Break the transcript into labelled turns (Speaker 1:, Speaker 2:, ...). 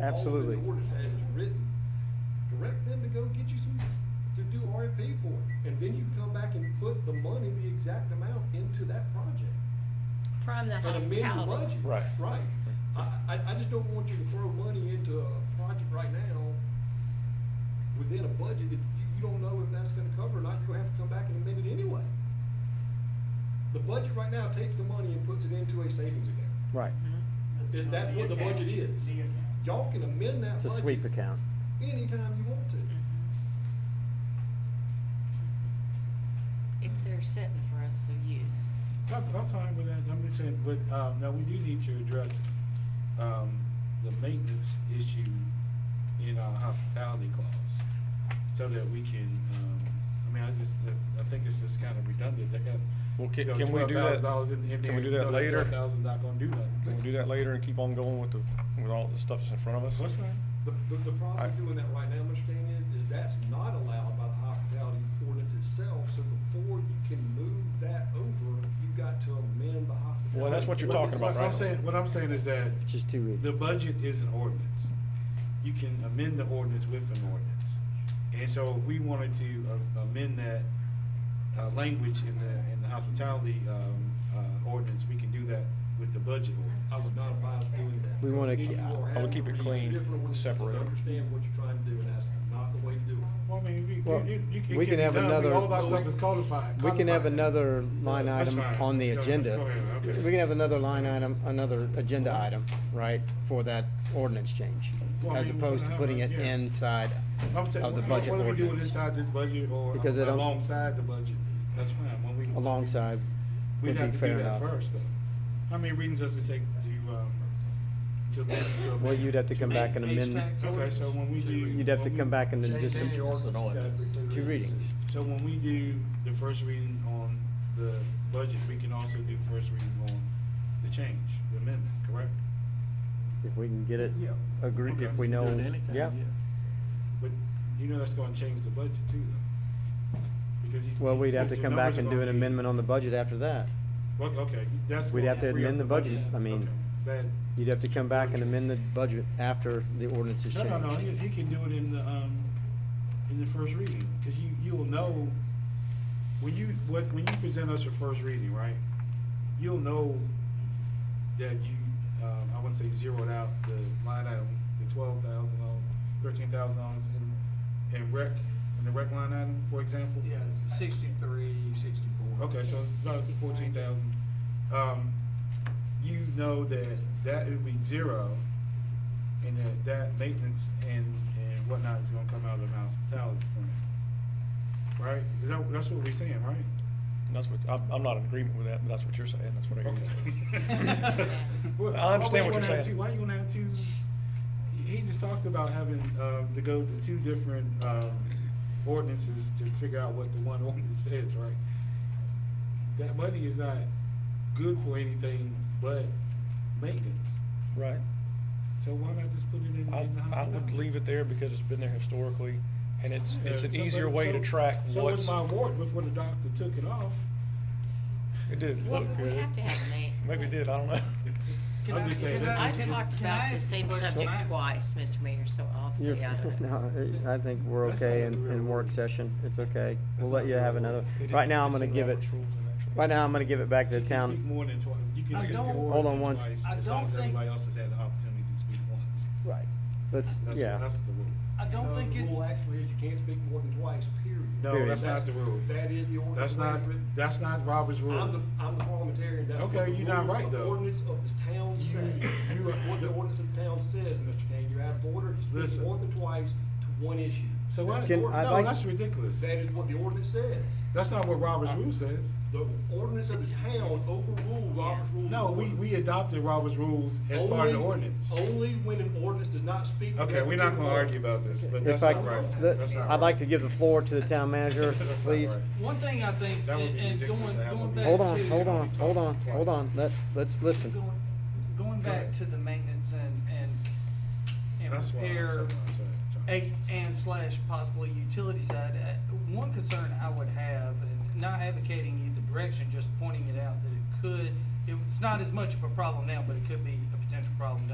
Speaker 1: Absolutely.
Speaker 2: All the orders as it's written, direct them to go get you some, to do RFP for it, and then you come back and put the money, the exact amount into that project.
Speaker 3: From the
Speaker 2: An amended
Speaker 3: hospitality. Mm-hmm.
Speaker 2: budget.
Speaker 1: Right.
Speaker 2: Right. I, I, I just don't want you to throw money into a project right now within a budget that you, you don't know if that's gonna cover or not, you're gonna have to come back and amend it anyway. The budget right now takes the money and puts it into a savings account.
Speaker 1: Right.
Speaker 4: Mm-hmm.
Speaker 2: Is- that's what the budget is.
Speaker 5: The account.
Speaker 2: Y'all can amend that
Speaker 1: It's
Speaker 2: budget.
Speaker 1: a sweep account.
Speaker 2: Anytime you want to.
Speaker 3: It's there sitting for us to use.
Speaker 4: I'm, I'm fine with that, I'm just saying, but, um, now we do need to address, um, the maintenance issue in our hospitality clause, so that we can, um, I mean, I just, that's- I think it's just kind of redundant, they got,
Speaker 6: Well,
Speaker 4: you
Speaker 6: can,
Speaker 4: know,
Speaker 6: can we do that?
Speaker 4: $12,000 in, in there.
Speaker 6: Can we do that later?
Speaker 4: Twelve thousand not gonna do
Speaker 6: Can
Speaker 4: nothing.
Speaker 6: we do that later and keep on going with the, with all the stuff that's in front of us?
Speaker 4: That's fine.
Speaker 2: The, the, the problem with doing that right now, Mr. Dan, is, is that's not allowed by the hospitality ordinance itself, so before you can move that over, you got to amend the hospitality.
Speaker 6: Well, that's what you're talking about,
Speaker 4: What I'm
Speaker 6: right?
Speaker 4: saying, what I'm saying is that
Speaker 1: It's just too easy.
Speaker 4: the budget is an ordinance. You can amend the ordinance with an ordinance. And so if we wanted to uh, amend that, uh, language in the, in the hospitality, um, uh, ordinance, we can do that with the budget
Speaker 2: I
Speaker 4: ordinance.
Speaker 2: would not advise doing that.
Speaker 1: We wanna
Speaker 2: Then
Speaker 1: ke-
Speaker 2: you
Speaker 1: I- I
Speaker 2: are having
Speaker 1: would
Speaker 6: keep
Speaker 2: to
Speaker 6: it
Speaker 2: read two
Speaker 6: clean,
Speaker 2: different ordinances to
Speaker 6: separate 'em.
Speaker 2: Understand what you're trying to do, and that's not the way to do it.
Speaker 4: Well, I mean, we,
Speaker 1: Well,
Speaker 4: it, it- it can
Speaker 1: we
Speaker 4: be
Speaker 1: can have
Speaker 4: done.
Speaker 1: another-
Speaker 4: All our stuff is codified.
Speaker 1: We can have
Speaker 4: codified.
Speaker 1: another line
Speaker 4: That's
Speaker 1: item
Speaker 4: fine.
Speaker 1: on the
Speaker 4: Go- let's
Speaker 1: agenda.
Speaker 4: go ahead, okay.
Speaker 1: We can have another line item, another agenda item, right, for that ordinance change,
Speaker 4: Well, I
Speaker 1: as
Speaker 4: mean,
Speaker 1: opposed to
Speaker 4: whatever,
Speaker 1: putting it
Speaker 4: yeah.
Speaker 1: inside
Speaker 4: I'm saying,
Speaker 1: of the
Speaker 4: what-
Speaker 1: budget
Speaker 4: What are we doing
Speaker 1: ordinance.
Speaker 4: inside this budget or
Speaker 1: Because it don't-
Speaker 4: alongside the budget? That's fine, when we.
Speaker 1: Alongside
Speaker 4: We'd
Speaker 1: would
Speaker 4: have
Speaker 1: be
Speaker 4: to
Speaker 1: fair
Speaker 4: do that
Speaker 1: enough.
Speaker 4: first, though. How many readings does it take to, um, to amend? to
Speaker 1: Well,
Speaker 4: amend?
Speaker 1: you'd have to come back and amend,
Speaker 4: Okay, so when we do.
Speaker 1: you'd have to
Speaker 4: when
Speaker 1: come
Speaker 4: we-
Speaker 1: back and then just, two
Speaker 7: Two
Speaker 1: readings.
Speaker 4: So when we do the first reading on the budget, we can also do first reading on the change, the amendment, correct?
Speaker 1: if we can get it
Speaker 7: Yeah.
Speaker 1: agreed,
Speaker 4: Okay.
Speaker 1: if we know, yeah.
Speaker 4: But you know that's gonna change the budget too, though. Because you-
Speaker 1: Well, we'd have to
Speaker 4: because the
Speaker 1: come back
Speaker 4: numbers
Speaker 1: and
Speaker 4: are
Speaker 1: do an
Speaker 4: gonna be-
Speaker 1: amendment on the budget after that.
Speaker 4: Well, okay, that's.
Speaker 1: We'd
Speaker 4: gonna
Speaker 1: have to
Speaker 4: free up
Speaker 1: amend the budget. I mean,
Speaker 4: Okay, that-
Speaker 1: You'd have to come back and amend the budget after the ordinance is
Speaker 4: No,
Speaker 1: changed.
Speaker 4: no, no, he, he can do it in the, um, in the first reading, cause you, you'll know, when you, what, when you present us your first reading, right? You'll know that you, um, I wouldn't say zeroed out the line item, the twelve thousand dollars, thirteen thousand dollars in, in rec, in the rec line item, for example?
Speaker 7: Yeah, sixty-three, sixty-four.
Speaker 4: Okay, so it's about fourteen thousand. Um, you know that that would be zero, and that that maintenance and, and whatnot is gonna come out of the hospitality fund. Right? Is that, that's what we're saying, right?
Speaker 6: That's what, I'm, I'm not in agreement with that, but that's what you're saying, that's what I hear.
Speaker 4: Okay.
Speaker 6: Well,
Speaker 4: Well,
Speaker 6: I understand
Speaker 4: why
Speaker 6: what you're
Speaker 4: would you wanna have
Speaker 6: saying.
Speaker 4: two- Why you gonna have two, he just talked about having, um, to go to two different, um, ordinances to figure out what the one ordinance says, right? That money is not good for anything but maintenance,
Speaker 6: Right.
Speaker 4: so why not just put it in?
Speaker 6: I,
Speaker 4: in the
Speaker 6: I would
Speaker 4: hospitality?
Speaker 6: leave it there because it's been there historically, and it's, it's
Speaker 4: Yeah,
Speaker 6: an
Speaker 4: so-
Speaker 6: easier
Speaker 4: but-
Speaker 6: way to
Speaker 4: so-
Speaker 6: track
Speaker 4: So
Speaker 6: what's.
Speaker 4: was my ward before the doctor took it off.
Speaker 6: It did
Speaker 3: Well,
Speaker 6: look
Speaker 3: but we
Speaker 6: good.
Speaker 3: have to have a ma-
Speaker 6: Maybe it did, I don't know.
Speaker 7: Can
Speaker 4: I'm
Speaker 7: I-
Speaker 4: just saying,
Speaker 7: can I-
Speaker 4: that's-
Speaker 3: I've talked
Speaker 7: can
Speaker 3: about
Speaker 7: I
Speaker 3: the
Speaker 7: ask a
Speaker 3: same
Speaker 7: question?
Speaker 3: subject
Speaker 7: Max?
Speaker 3: twice, Mr. Mayor, so I'll
Speaker 1: You're-
Speaker 3: stay out of it.
Speaker 1: No, I I think we're
Speaker 4: That's
Speaker 1: okay
Speaker 4: not
Speaker 1: in,
Speaker 4: the real
Speaker 1: in work
Speaker 4: rule.
Speaker 1: session, it's okay, we'll let
Speaker 4: That's not
Speaker 1: you
Speaker 4: the
Speaker 1: have
Speaker 4: real
Speaker 1: another.
Speaker 4: rule. They
Speaker 1: Right
Speaker 6: didn't-
Speaker 1: now, I'm
Speaker 6: it's
Speaker 1: gonna
Speaker 6: in
Speaker 1: give it,
Speaker 6: Robert's rules and actually-
Speaker 1: right now, I'm gonna give it back to the
Speaker 4: You can speak
Speaker 1: town.
Speaker 4: more than twice. You can
Speaker 7: I
Speaker 4: speak
Speaker 7: don't-
Speaker 4: your
Speaker 1: Hold on
Speaker 4: ordinance
Speaker 1: one s-
Speaker 4: twice,
Speaker 7: I
Speaker 4: as
Speaker 7: don't
Speaker 4: long as
Speaker 7: think-
Speaker 4: Everybody else has had the opportunity to speak once.
Speaker 1: Right. Let's,
Speaker 4: That's,
Speaker 1: yeah,
Speaker 4: that's the rule.
Speaker 7: I don't
Speaker 2: No,
Speaker 7: think
Speaker 2: The rule
Speaker 7: it's,
Speaker 2: actually is you can't speak more than twice, period.
Speaker 4: No,
Speaker 1: Period.
Speaker 4: that's not the rule.
Speaker 2: That is the ordinance.
Speaker 4: That's not,
Speaker 2: written.
Speaker 4: that's not Robert's rule.
Speaker 2: I'm the, I'm the parliamentarian, that's what
Speaker 4: Okay,
Speaker 2: the
Speaker 4: you're not
Speaker 2: rule-
Speaker 4: right,
Speaker 2: the
Speaker 4: though.
Speaker 2: ordinance of this town
Speaker 4: You-
Speaker 2: says.
Speaker 4: you are-
Speaker 2: What the ordinance of the town says, Mr. Kane, you're out of order, you speak
Speaker 4: Listen.
Speaker 2: more than twice to one issue.
Speaker 4: So what?
Speaker 2: That's
Speaker 1: Can-
Speaker 2: the ordinance.
Speaker 1: I'd
Speaker 4: No,
Speaker 1: like-
Speaker 4: that's ridiculous.
Speaker 2: That is what the ordinance says.
Speaker 4: That's not what Robert's rule says.
Speaker 2: The ordinance of the town overruled Robert's rules.
Speaker 4: No, we, we adopted Robert's rules as part of the
Speaker 2: Only-
Speaker 4: ordinance.
Speaker 2: Only when an ordinance does not speak. to
Speaker 4: Okay,
Speaker 2: that
Speaker 4: we're not gonna
Speaker 2: particular
Speaker 4: argue about this, but that's
Speaker 1: if I,
Speaker 4: not right.
Speaker 1: the-
Speaker 4: That's not
Speaker 1: I'd like
Speaker 4: right.
Speaker 1: to give the floor to the town manager,
Speaker 4: That's not
Speaker 1: please.
Speaker 4: right.
Speaker 7: one thing I think,
Speaker 4: That would
Speaker 7: and
Speaker 4: be
Speaker 7: and
Speaker 4: ridiculous
Speaker 7: going,
Speaker 4: to have
Speaker 7: going
Speaker 4: a
Speaker 7: back to.
Speaker 1: Hold on, hold on,
Speaker 4: Twice.
Speaker 1: hold on, hold on, let, let's listen.
Speaker 7: Going- Going
Speaker 4: Go
Speaker 7: back
Speaker 4: ahead.
Speaker 7: to the maintenance and, and, and
Speaker 4: That's why I said
Speaker 7: repair,
Speaker 4: what I said, John.
Speaker 7: a- and slash possibly utility side, uh, one concern I would have, and not advocating either direction, just pointing it out that it could, it's not as much of a problem now, but it could be a potential problem down